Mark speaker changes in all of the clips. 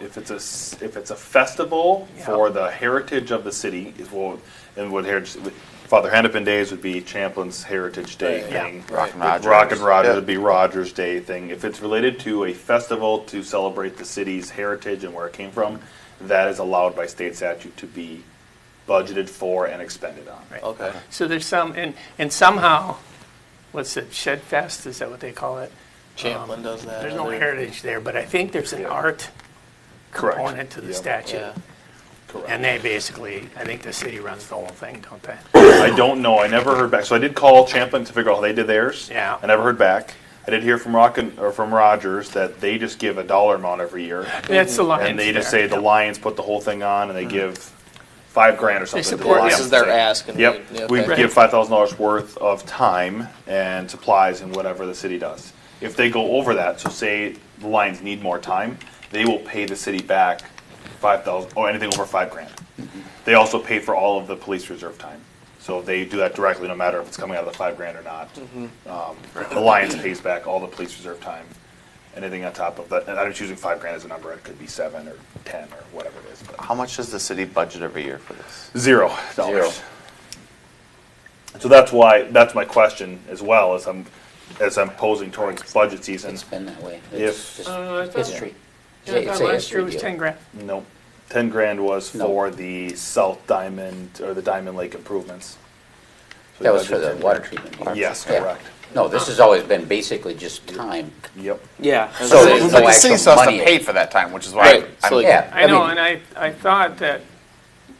Speaker 1: if it's a, s- if it's a festival for the heritage of the city, is what, and what heritage, Father Hennepin Days would be Champlin's Heritage Day
Speaker 2: Right.
Speaker 1: thing.
Speaker 2: Yeah. Rock and
Speaker 1: With
Speaker 3: Rogers.
Speaker 1: Rock and Rogers
Speaker 2: Yeah.
Speaker 1: would be Rogers Day thing. If it's related to a festival to celebrate the city's heritage and where it came from, that is allowed by state statute to be budgeted for and expended on.
Speaker 4: Right.
Speaker 2: Okay.
Speaker 4: So there's some, and, and somehow, what's it, Shed Fest, is that what they call it? Um,
Speaker 2: Champlin does that.
Speaker 4: There's no
Speaker 2: other-
Speaker 4: heritage there, but I think there's an
Speaker 1: Yeah.
Speaker 4: art
Speaker 1: Correct.
Speaker 4: component to the
Speaker 1: Yep.
Speaker 4: statute.
Speaker 2: Yeah.
Speaker 1: Correct.
Speaker 4: And they basically, I think the city runs the whole thing, don't they?
Speaker 1: I don't know. I never heard back. So I did call Champlin to figure out how they did theirs.
Speaker 4: Yeah.
Speaker 1: I never heard back. I did hear from Rock and, or from Rogers that they just give a dollar amount every year,
Speaker 4: That's the Lions
Speaker 1: and they just
Speaker 4: there. Mm.
Speaker 1: say the Lions put the whole thing on, and they give five grand or something. to the
Speaker 4: support-
Speaker 2: This
Speaker 1: Lions.
Speaker 2: is their ask. And we,
Speaker 1: Yep, we
Speaker 2: okay.
Speaker 1: give five thousand dollars worth of time and supplies and whatever the city does. If they go over that, so say the Lions need more time, they will pay the city back five thousand, or anything over five grand. They also pay for all of the police reserve time. So they do that directly, no matter if it's coming out of the five grand or not. Um, The Lions pays back all the police reserve time, anything on top of that. And I'm just using five grand as a number, it could be seven or ten or whatever it is. but-
Speaker 3: How much does the city budget every year for this?
Speaker 1: Zero dollars. So that's why, that's my question as well, as I'm, as I'm posing towards budget season.
Speaker 5: It's been that way.
Speaker 1: If-
Speaker 5: It's just
Speaker 4: Uh, I thought-
Speaker 5: history.
Speaker 4: Yeah, I
Speaker 5: It's a
Speaker 4: thought last
Speaker 5: history
Speaker 4: year was
Speaker 5: deal.
Speaker 4: ten grand.
Speaker 1: Nope. Ten grand was
Speaker 5: No.
Speaker 1: for the South Diamond, or the Diamond Lake improvements. So
Speaker 5: That was
Speaker 1: budgeted
Speaker 5: for the
Speaker 1: 10
Speaker 5: water
Speaker 1: grand.
Speaker 5: treatment. plant.
Speaker 1: Yes,
Speaker 5: Yeah.
Speaker 1: correct.
Speaker 5: No, this has always been basically just time.
Speaker 1: Yep.
Speaker 2: Yeah.
Speaker 5: So there's
Speaker 3: But
Speaker 5: no
Speaker 3: the city
Speaker 5: actual
Speaker 3: still has to
Speaker 5: money.
Speaker 3: pay for that time, which is why.
Speaker 2: Right,
Speaker 3: I'm-
Speaker 2: so like-
Speaker 5: Yeah.
Speaker 4: I know,
Speaker 5: mean,
Speaker 4: and I, I thought that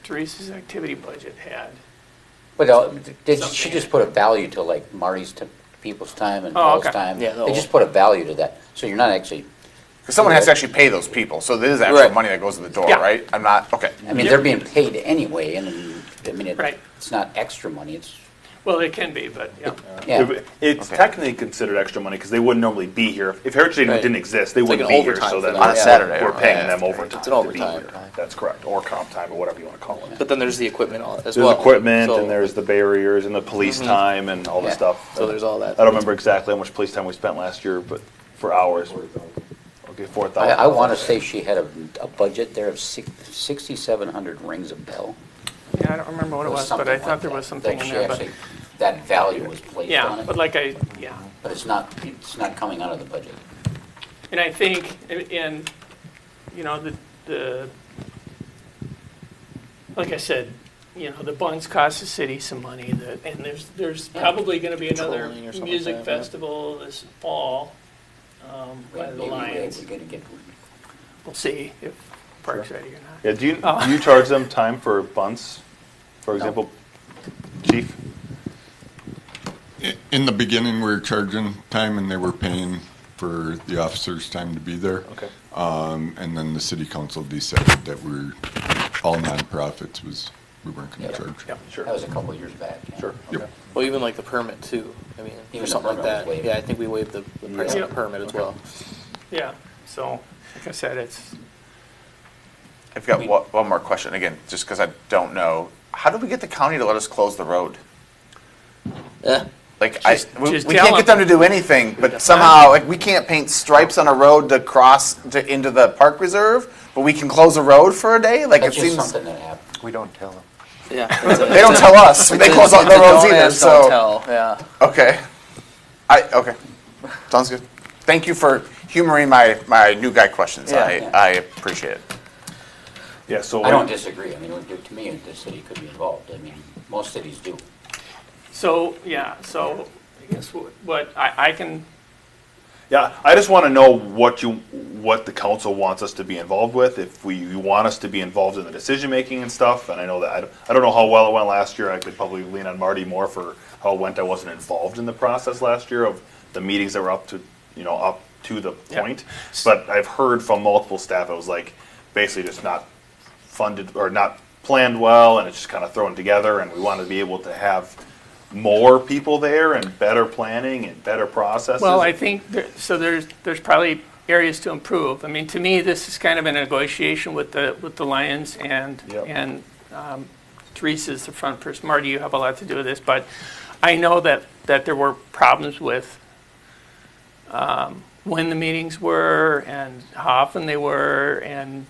Speaker 4: Teresa's activity budget had,
Speaker 5: But uh, did, she just put a value to like Marty's, t- people's time and
Speaker 4: Oh,
Speaker 5: Paul's
Speaker 4: okay.
Speaker 5: time.
Speaker 2: Yeah, the
Speaker 5: They
Speaker 2: whole-
Speaker 5: just put a value to that. So you're not actually,
Speaker 3: 'cause Someone has to actually pay those people, so there is actual
Speaker 2: Right.
Speaker 3: money that goes to the door,
Speaker 4: Yeah.
Speaker 3: right? I'm not, okay.
Speaker 5: I mean, they're being paid anyway and, I mean,
Speaker 4: Right.
Speaker 5: it- it's not extra money, it's,
Speaker 4: well, it can be, but, yeah.
Speaker 5: yeah.
Speaker 1: It- It's
Speaker 3: Okay.
Speaker 1: technically considered extra money, because they wouldn't normally be here. If- If Heritage Day
Speaker 2: Right.
Speaker 1: didn't exist, they
Speaker 2: It's like
Speaker 1: wouldn't
Speaker 2: an
Speaker 1: be here,
Speaker 2: overtime
Speaker 1: so
Speaker 2: for
Speaker 1: then.
Speaker 2: them. On a
Speaker 1: we're-
Speaker 3: Saturday
Speaker 1: We're
Speaker 3: or-
Speaker 1: paying
Speaker 3: yeah,
Speaker 1: them
Speaker 3: it's-
Speaker 1: overtime
Speaker 2: it's an
Speaker 1: to be
Speaker 2: overtime.
Speaker 1: here. That's correct, or comp time, or whatever you want to call it.
Speaker 2: But then there's the equipment all- as
Speaker 1: There's
Speaker 2: well.
Speaker 1: equipment
Speaker 2: so, Mm-hmm.
Speaker 1: and there's the barriers and the police time and all the
Speaker 5: Yeah.
Speaker 1: stuff.
Speaker 2: So there's all that.
Speaker 1: I don't remember exactly how much police time we spent last year, but for hours. Okay, four
Speaker 5: I,
Speaker 1: thousand.
Speaker 5: I want to say she had a, a budget there of six- 6,700 rings a bell.
Speaker 4: Yeah, I don't remember what it
Speaker 5: or
Speaker 4: was, but
Speaker 5: something
Speaker 4: I
Speaker 5: like
Speaker 4: thought there
Speaker 5: that,
Speaker 4: was something
Speaker 5: that
Speaker 4: in
Speaker 5: she
Speaker 4: there, but,
Speaker 5: actually- That value was placed on
Speaker 4: yeah,
Speaker 5: it.
Speaker 4: but like I, yeah.
Speaker 5: But it's not, it's not coming out of the budget.
Speaker 4: And I think, and- and, you know, the, the, like I said, you know, the buns cost the city some money, the- and there's, there's probably gonna be another
Speaker 2: Trolling or something like
Speaker 4: music
Speaker 2: that, yeah.
Speaker 4: festival this fall, um, by the
Speaker 5: Maybe we're-
Speaker 4: Lions.
Speaker 5: We're gonna get,
Speaker 4: We'll see if Park's ready or not.
Speaker 1: Yeah, do you,
Speaker 4: Oh.
Speaker 1: do you charge them time for bunts, for example? Chief,
Speaker 6: In the beginning, we were charging time and they were paying for the officers' time to be there.
Speaker 1: okay.
Speaker 6: Um, And then the city council decided that we're, all nonprofits was, we weren't going
Speaker 5: Yeah.
Speaker 6: to charge.
Speaker 4: Yeah.
Speaker 1: Sure,
Speaker 5: that was a couple of years back. yeah.
Speaker 1: sure.
Speaker 6: Yep.
Speaker 1: okay.
Speaker 2: well, even like the permit too. I mean,
Speaker 5: Even
Speaker 2: or
Speaker 5: the
Speaker 2: something like
Speaker 5: permit was
Speaker 2: that.
Speaker 5: waived.
Speaker 2: Yeah, I think we waived the, the price
Speaker 4: Yeah.
Speaker 2: of the permit as well.
Speaker 4: Yeah, so, like I said, it's,
Speaker 3: I've got one, one more question, again, just because I don't know. How do we get the county to let us close the road?
Speaker 2: Yeah.
Speaker 3: Like, I,
Speaker 4: Just-
Speaker 3: we,
Speaker 4: just
Speaker 3: we
Speaker 4: tell
Speaker 3: can't get
Speaker 4: them.
Speaker 3: them to do anything, but somehow, like, we can't paint stripes on a road to cross to, into the park reserve, but we can close a road for a day? Like, it
Speaker 5: That's just
Speaker 3: seems,
Speaker 5: something that happened.
Speaker 3: we don't tell them.
Speaker 2: Yeah. that's it.
Speaker 3: They don't tell us, they close all the
Speaker 2: Don't
Speaker 3: roads either,
Speaker 2: ask, don't
Speaker 3: so.
Speaker 2: tell. Yeah.
Speaker 3: Okay. I, okay. Sounds good. Thank you for humoring my, my new guy questions.
Speaker 2: Yeah.
Speaker 3: I, I appreciate it.
Speaker 1: Yeah, so.
Speaker 5: I don't disagree, I mean, it would- to me, the city could be involved, I mean, most cities do.
Speaker 4: so, yeah, so, I guess what- what, I, I can,
Speaker 1: Yeah, I just want to know what you, what the council wants us to be involved with, if we, you want us to be involved in the decision-making and stuff, and I know that, I don't, I don't know how well it went last year, I could probably lean on Marty more for how it went, I wasn't involved in the process last year of the meetings that were up to, you know, up to the
Speaker 4: Yeah.
Speaker 1: point, but I've heard from multiple staff, it was like, basically just not funded, or not planned well, and it's just kind of thrown together, and we want to be able to have more people there, and better planning, and better processes.
Speaker 4: Well, I think, there- so there's, there's probably areas to improve. I mean, to me, this is kind of a negotiation with the, with the Lions and,
Speaker 1: Yep.
Speaker 4: and um, Teresa's the front person. Marty, you have a lot to do with this, but I know that, that there were problems with um, when the meetings were and how often they were and